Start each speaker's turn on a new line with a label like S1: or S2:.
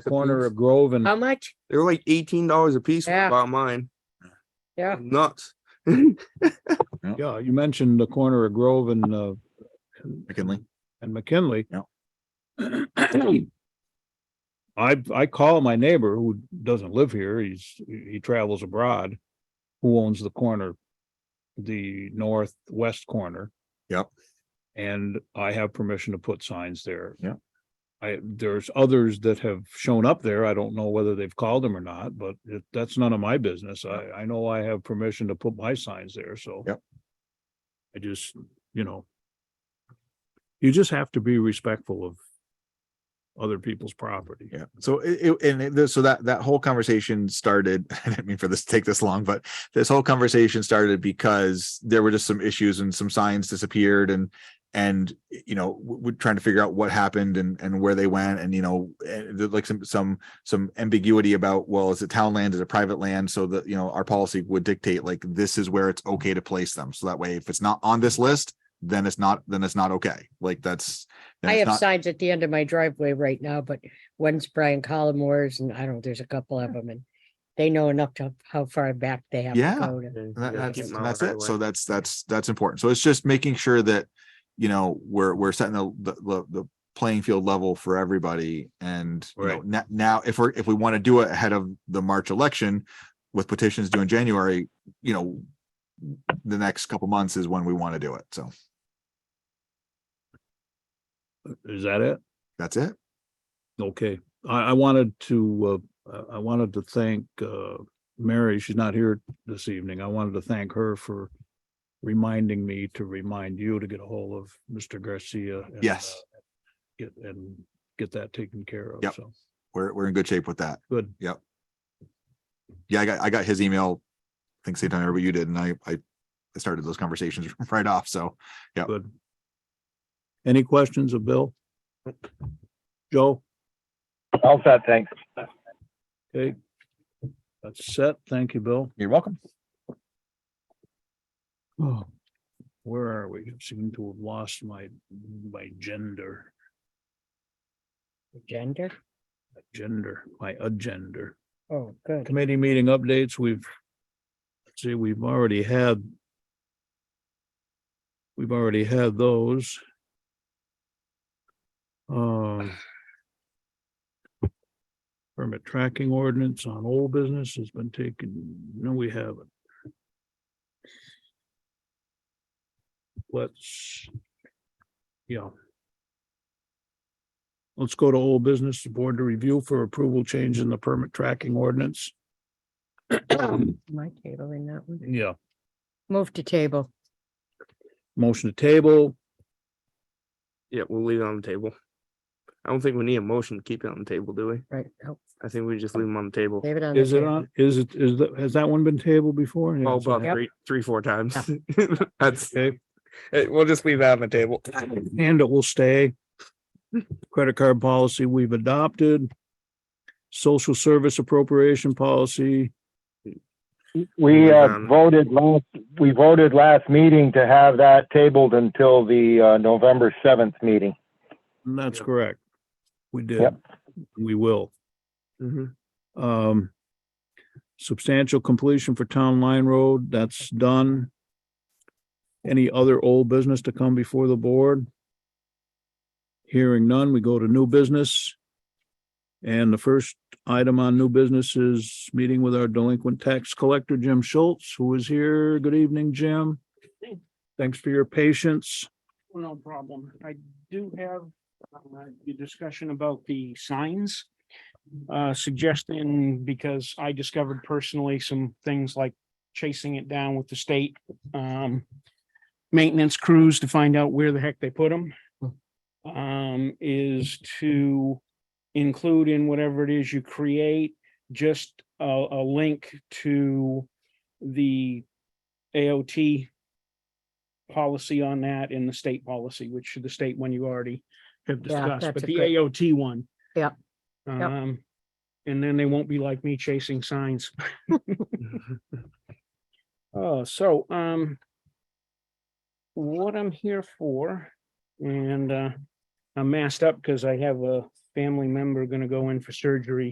S1: corner
S2: piece.
S1: of Grove
S3: Mm-hmm.
S1: and
S4: How much?
S2: They were like eighteen dollars a piece
S4: Yeah.
S2: about mine.
S4: Yeah.
S2: Nuts.
S1: Yeah, you mentioned the corner of Grove and, uh,
S3: McKinley.
S1: and McKinley.
S3: Yeah.
S1: I, I call my neighbor who doesn't live here, he's, he travels abroad, who owns the corner, the northwest corner.
S3: Yep.
S1: And I have permission to put signs there.
S3: Yeah.
S1: I, there's others that have shown up there. I don't know whether they've called them or not, but it- that's none of my business. I, I know I have permission to put my signs there, so.
S3: Yep.
S1: I just, you know, you just have to be respectful of other people's property.
S3: Yeah. So it, it- and it, this- so that that whole conversation started. I didn't mean for this to take this long, but this whole conversation started because there were just some issues and some signs disappeared and and you know w- we're trying to figure out what happened and and where they went and you know and there- like some some some ambiguity about well is it town land is it private land so that you know our policy would dictate like this is where it's okay to place them so that way if it's not on this list then it's not then it's not okay like that's then
S4: I
S3: it's
S4: have
S3: not-
S4: signs at the end of my driveway right now, but one's Brian Collmore's and I don't, know, there's a couple of them and they know enough to how far back they have to
S3: Yeah.
S4: go. to-
S2: And
S3: And that-
S4: Yeah,
S3: that's,
S4: keep
S3: and that's it. So that's, that's, that's important. So it's just making sure that, you know, we're, we're setting the, the, the- the playing field level for everybody. And you know,
S1: Right.
S3: na- now, if we're, if we want to do it ahead of the March election with petitions due in January, you know, the next couple months is when we want to do it. So
S1: Is that it?
S3: that's it.
S1: Okay. I, I wanted to, uh, I- I wanted to thank, uh, Mary, she's not here this evening. I wanted to thank her for reminding me to remind you to get a hold of Mr. Garcia. and,
S3: Yes.
S1: uh, Get, and get that taken care of.
S3: Yep.
S1: So,
S3: We're, we're in good shape with that.
S1: good.
S3: Yeah, I got, I got his email. I think same time everybody you did. And I, I I started those conversations right off. So
S1: Good. Any questions of Bill? Joe?
S5: All set, thanks.
S1: Okay. That's set. Thank you, Bill.
S3: you're welcome.
S1: Oh, where are we? Seem to have lost my, my gender,
S4: Gender?
S1: gender, my agenda.
S4: Oh, good.
S1: Committee meeting updates, we've, let's see, we've already had we've already had those. Um, permit tracking ordinance on old business has been taken, no, we haven't. Let's, yeah. Let's go to old business, the board to review for approval change in the permit tracking ordinance.
S4: My table in that
S3: Mm.
S4: one.
S1: Yeah,
S4: Move to table.
S1: motion to table,
S2: Yeah, we'll leave it on the table. I don't think we need a motion to keep it on the table, do we?
S4: Right. Oh,
S2: I think we just leave them on the table.
S4: David on. the
S1: is it
S4: table.
S1: on, is it, is, that- has that one been tabled before? Yeah,
S2: Oh,
S1: it's on-
S2: about three, three, four times. That's,
S1: Okay,
S2: eh, we'll just leave that on the table.
S1: and it will stay. Credit card policy we've adopted. Social service appropriation policy,
S5: We uh,
S2: Um,
S5: voted last, we voted last meeting to have that tabled until the uh, November 7th meeting.
S1: and that's
S2: Yep.
S1: correct. We did,
S5: Yep.
S1: we will.
S2: Mhm.
S1: Um, substantial completion for Town Line Road, that's done. Any other old business to come before the board? Hearing none, we go to new business. And the first item on new business is meeting with our delinquent tax collector, Jim Schultz, who is here. Good evening, Jim. Thanks for your patience.
S6: Well, No problem. I do have uh, the discussion about the signs. Uh, suggesting, because I discovered personally some things like chasing it down with the state. um, Maintenance crews to find out where the heck they put them. Um, is to include in whatever it is you create, just a, a link to the AOT policy on that in the state policy, which the state one you already have
S4: Yeah,
S6: discussed,
S4: that's
S6: but
S4: a
S6: the
S4: good-
S6: AOT one.
S4: Yep, yep.
S6: Um, and then they won't be like me chasing signs. Uh, so, um, what I'm here for, and, uh, I'm masked up because I have a family member gonna go in for surgery